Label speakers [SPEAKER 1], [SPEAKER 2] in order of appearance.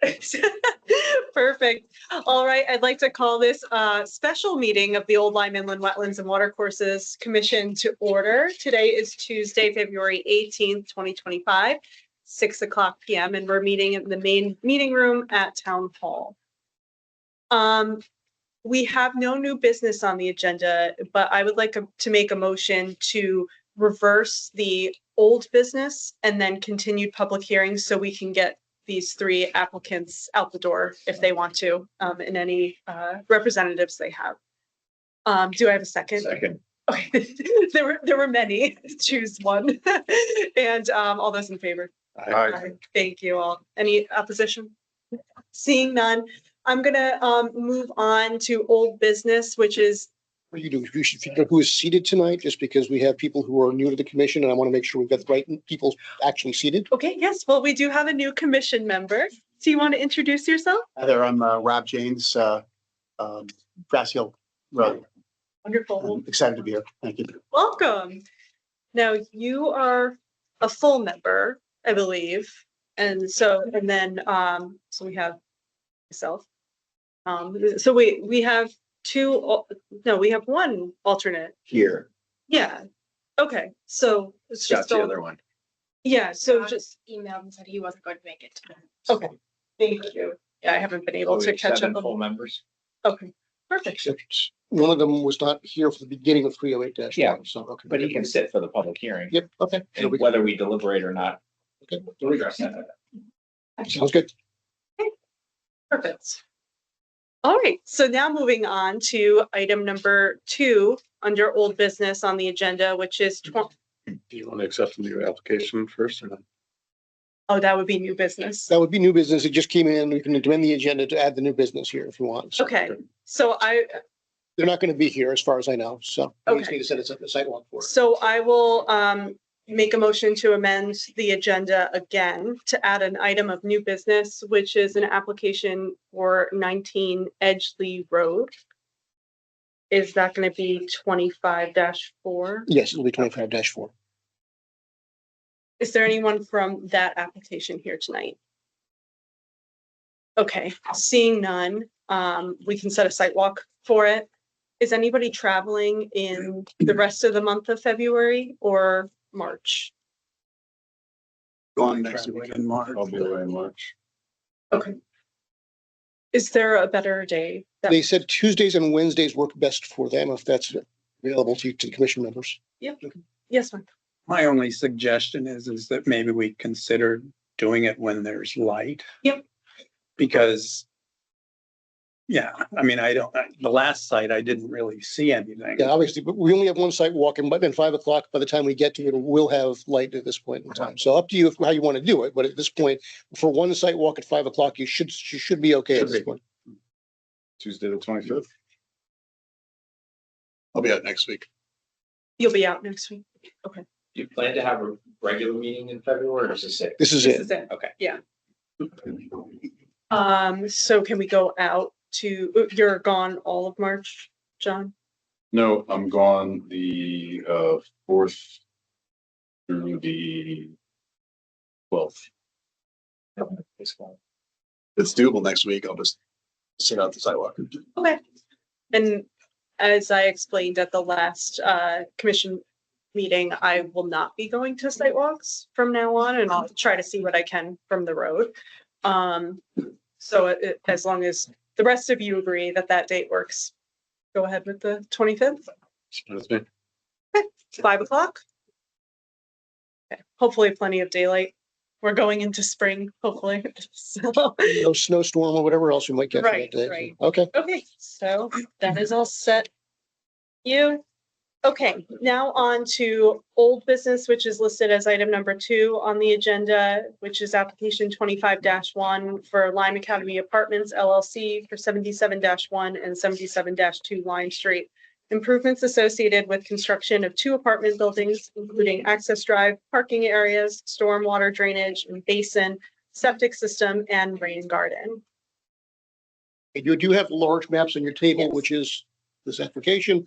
[SPEAKER 1] Perfect. Perfect. All right, I'd like to call this a special meeting of the Old Lyme Inland Wetlands and Watercourses Commission to order. Today is Tuesday, February eighteenth, twenty twenty-five, six o'clock PM, and we're meeting in the main meeting room at Town Hall. Um, we have no new business on the agenda, but I would like to make a motion to reverse the old business and then continued public hearings so we can get these three applicants out the door if they want to, um, and any, uh, representatives they have. Um, do I have a second?
[SPEAKER 2] Second.
[SPEAKER 1] Okay, there were, there were many, choose one. And, um, all those in favor?
[SPEAKER 2] Aye.
[SPEAKER 1] Thank you all. Any opposition? Seeing none, I'm gonna, um, move on to old business, which is,
[SPEAKER 3] What you do, you should figure out who is seated tonight, just because we have people who are new to the commission and I want to make sure we've got the right people actually seated.
[SPEAKER 1] okay, yes, well, we do have a new commission member. Do you want to introduce yourself?
[SPEAKER 4] Hi there, I'm uh, Rob James, uh, um, Grass Hill Road.
[SPEAKER 1] Wonderful.
[SPEAKER 4] I'm excited to be here. Thank you.
[SPEAKER 1] Welcome. Now, you are a full member, I believe. And so, and then, um, so we have myself. Um, so we, we have two, al- no, we have one alternate.
[SPEAKER 2] Here,
[SPEAKER 1] Yeah. Okay, so it's
[SPEAKER 2] got
[SPEAKER 1] just,
[SPEAKER 2] the
[SPEAKER 1] all-
[SPEAKER 2] other one.
[SPEAKER 1] yeah, so just,
[SPEAKER 5] emailed and said he wasn't going to make it.
[SPEAKER 1] okay, thank you. Yeah, I haven't been
[SPEAKER 6] Oh,
[SPEAKER 1] able to catch up. on-
[SPEAKER 2] members.
[SPEAKER 1] Okay, perfect.
[SPEAKER 3] Except One of them was not here for the beginning of three oh eight dash
[SPEAKER 6] Yeah,
[SPEAKER 3] one, so, okay.
[SPEAKER 6] But he can sit for the public hearing,
[SPEAKER 3] Yep, okay. So
[SPEAKER 6] and
[SPEAKER 3] we-
[SPEAKER 6] whether we deliberate or not.
[SPEAKER 3] Okay.
[SPEAKER 6] we'll address that.
[SPEAKER 3] Sounds good.
[SPEAKER 1] Perfect. All right, so now moving on to item number two under old business on the agenda, which is twen-
[SPEAKER 7] Do you want to accept the new application first or not?
[SPEAKER 1] oh, that would be new business.
[SPEAKER 3] That would be new business. It just came in. We can amend the agenda to add the new business here if you want. So
[SPEAKER 1] Okay, so I,
[SPEAKER 3] They're not going to be here as far as I know, so. we just
[SPEAKER 1] Okay.
[SPEAKER 3] Need to set us up the sidewalk for it.
[SPEAKER 1] so I will um make a motion to amend the agenda again to add an item of new business, which is an application for nineteen Edgeley Road. Is that gonna be twenty-five four?
[SPEAKER 3] Yes, it'll be twenty-five dash four.
[SPEAKER 1] Is there anyone from that application here tonight? Okay, seeing none, um, we can set a site walk for it. Is anybody traveling in the rest of the month of February or March?
[SPEAKER 4] Going next week in March.
[SPEAKER 7] I'll be away in March.
[SPEAKER 1] Is there a better day? that-
[SPEAKER 3] They said Tuesdays and Wednesdays work best for them if that's available to to the commission members.
[SPEAKER 1] Yes, ma'am.
[SPEAKER 8] My only suggestion is, is that maybe we consider doing it when there's light.
[SPEAKER 1] Yep.
[SPEAKER 8] Because, yeah, I mean, I don't, I- the last site, I didn't really see anything.
[SPEAKER 3] Yeah, obviously, but we only have one site walking, but then five o'clock, by the time we get to it, we'll have light at this point in time. So up to you if- how you want to do it, but at this point, for one site walk at five o'clock, you should, you should be okay at
[SPEAKER 7] Should
[SPEAKER 3] this
[SPEAKER 7] be.
[SPEAKER 3] point.
[SPEAKER 7] Tuesday, the twenty-fifth. I'll be out next week.
[SPEAKER 1] You'll be out next week.
[SPEAKER 6] Do you plan to have a regular meeting in February or is this it?
[SPEAKER 3] This is
[SPEAKER 1] This
[SPEAKER 3] it.
[SPEAKER 1] is it.
[SPEAKER 6] Okay.
[SPEAKER 1] Yeah. Um, so can we go out to, oh, you're gone all of March, John?
[SPEAKER 7] No, I'm gone the uh fourth through the twelfth.
[SPEAKER 6] It's fine.
[SPEAKER 2] It's doable next week. I'll just sit out the sidewalk.
[SPEAKER 1] Okay. And as I explained at the last uh commission meeting, I will not be going to sidewalks from now on and I'll try to see what I can from the road. Um, so it- it- as long as the rest of you agree that that date works, go ahead with the twenty-fifth,
[SPEAKER 7] That's me.
[SPEAKER 1] five o'clock. Okay, Hopefully plenty of daylight. We're going into spring, hopefully. So,
[SPEAKER 3] No snowstorm or whatever else we might get. for that
[SPEAKER 1] Right,
[SPEAKER 3] day.
[SPEAKER 1] right.
[SPEAKER 3] Okay.
[SPEAKER 1] Okay, so that is all set. You, okay, now on to old business, which is listed as item number two on the agenda, which is application twenty-five one for Lime Academy Apartments LLC for seventy-seven one and seventy-seven two Lime Street. Improvements associated with construction of two apartment buildings, including access drive, parking areas, stormwater drainage, and basin, septic system, and rain garden.
[SPEAKER 3] And You do have large maps on your table,
[SPEAKER 1] Yes.
[SPEAKER 3] which is this application,